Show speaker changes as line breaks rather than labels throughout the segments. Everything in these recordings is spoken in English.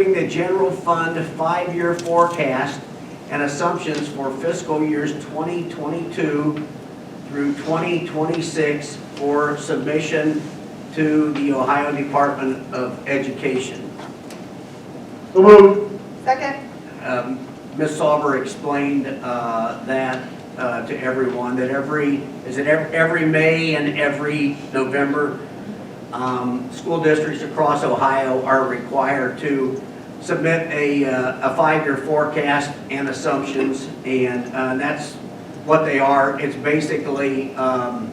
Approving the general fund five-year forecast and assumptions for fiscal years 2022 through 2026 for submission to the Ohio Department of Education.
So moved.
Second?
Um, Ms. Sauber explained uh, that uh, to everyone, that every, is it ev- every May and every November, um, school districts across Ohio are required to submit a, uh, a five-year forecast and assumptions, and uh, that's what they are. It's basically um,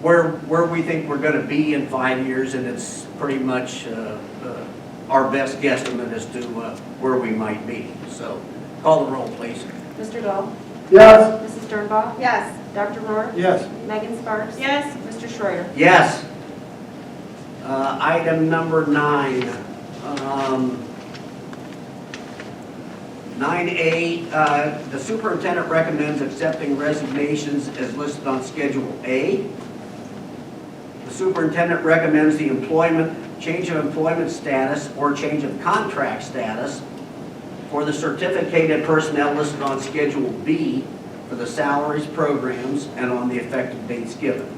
where, where we think we're going to be in five years, and it's pretty much uh, uh, our best guesstimate as to uh, where we might be. So call the roll, please.
Mr. Dahl.
Yes.
Mrs. Sternbach.
Yes.
Dr. Rohr.
Yes.
Megan Sparks.
Yes.
Mr. Schreier.
Yes. Uh, Item number nine. um, 9A, uh, the superintendent recommends accepting resignations as listed on Schedule A. The superintendent recommends the employment, change of employment status or change of contract status for the certificated personnel listed on Schedule B for the salaries, programs, and on the effective dates given.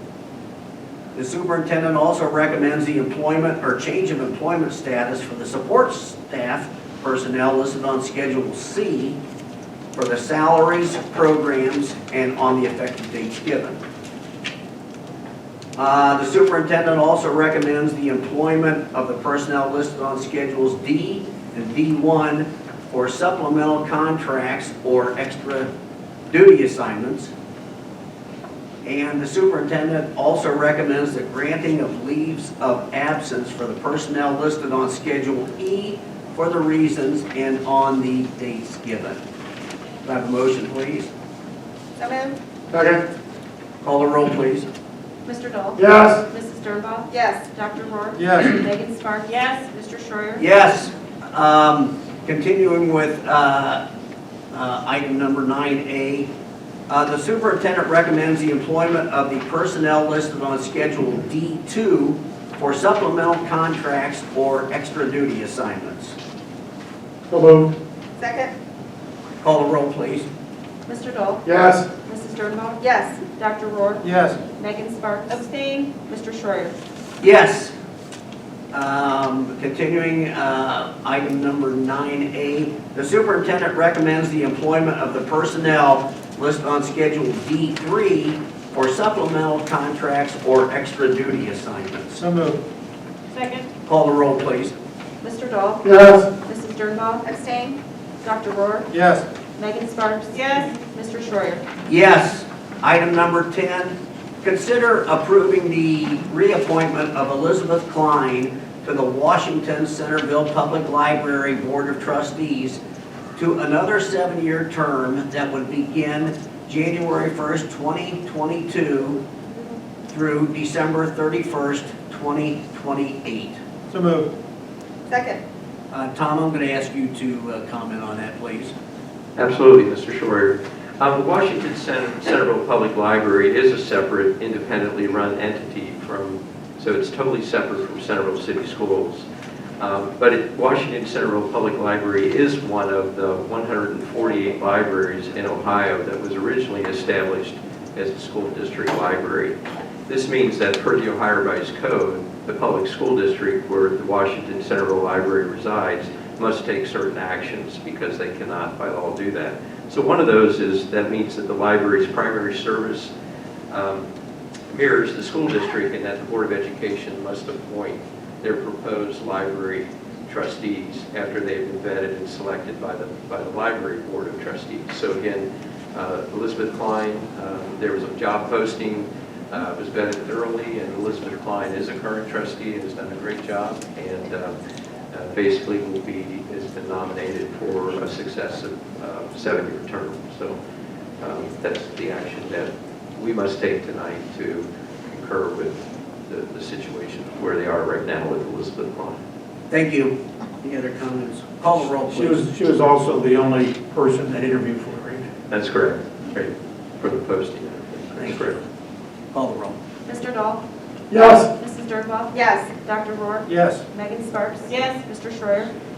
The superintendent also recommends the employment or change of employment status for the support staff personnel listed on Schedule C for the salaries, programs, and on the effective dates given. Uh, The superintendent also recommends the employment of the personnel listed on Schedules D and D1 for supplemental contracts or extra duty assignments and the superintendent also recommends the granting of leaves of absence for the personnel listed on Schedule E for the reasons and on the dates given. Do I have a motion, please?
So moved?
Second.
Call the roll, please.
Mr. Dahl.
Yes.
Mrs. Sternbach.
Yes.
Dr. Rohr.
Yes.
Megan Sparks.
Yes.
Mr. Schreier.
Yes, um, continuing with, uh, uh, item number nine A. Uh, the superintendent recommends the employment of the personnel listed on Schedule D two for supplemental contracts or extra duty assignments.
So moved.
Second?
Call the roll, please.
Mr. Dahl.
Yes.
Mrs. Sternbach.
Yes.
Dr. Rohr.
Yes.
Megan Sparks.
Abstain?
Mr. Schreier.
Yes. Um, Continuing, uh, item number 9A, the superintendent recommends the employment of the personnel listed on Schedule D3 for supplemental contracts or extra duty assignments.
So moved.
Second?
Call the roll, please.
Mr. Dahl.
Yes.
Mrs. Sternbach.
Abstain?
Dr. Rohr.
Yes.
Megan Sparks.
Yes.
Mr. Schreier.
Yes. Item number 10, consider approving the reappointment of Elizabeth Klein to the Washington Centerville Public Library Board of Trustees to another seven-year term that would begin January 1st, 2022 through December 31st, 2028.
So moved.
Second?
Uh, Tom, I'm going to ask you to uh, comment on that, please.
Absolutely, Mr. Schreier. Um, The Washington Cen- Centerville Public Library is a separate, independently run entity from, so it's totally separate from Centerville City Schools. Um, But it- Washington Centerville Public Library is one of the 148 libraries in Ohio that was originally established as a school district library. This means that per the Ohio Revised Code, the public school district where the Washington Centerville Library resides must take certain actions because they cannot by law do that. So one of those is, that means that the library's primary service um, mirrors the school district and that the Board of Education must appoint their proposed library trustees after they've been vetted and selected by the, by the library board of trustees. So again, uh, Elizabeth Klein, um, there was a job posting, uh, was vetted thoroughly, and Elizabeth Klein is a current trustee and has done a great job, and uh, uh, basically will be, has been nominated for a successive uh, seven-year term. So um, that's the action that we must take tonight to concur with the, the situation where they are right now with Elizabeth Klein.
Thank you. Any other comments? Call the roll,
She
please.
was, she was also the only person that interviewed for it, right?
That's correct, right, for the posting. That's correct.
Call the roll.
Mr. Dahl.
Yes.
Mrs. Ms. Dernbach?
Yes.
Dr. Rohr?
Yes.
Megan Sparks?
Yes.
Mr. Schreier?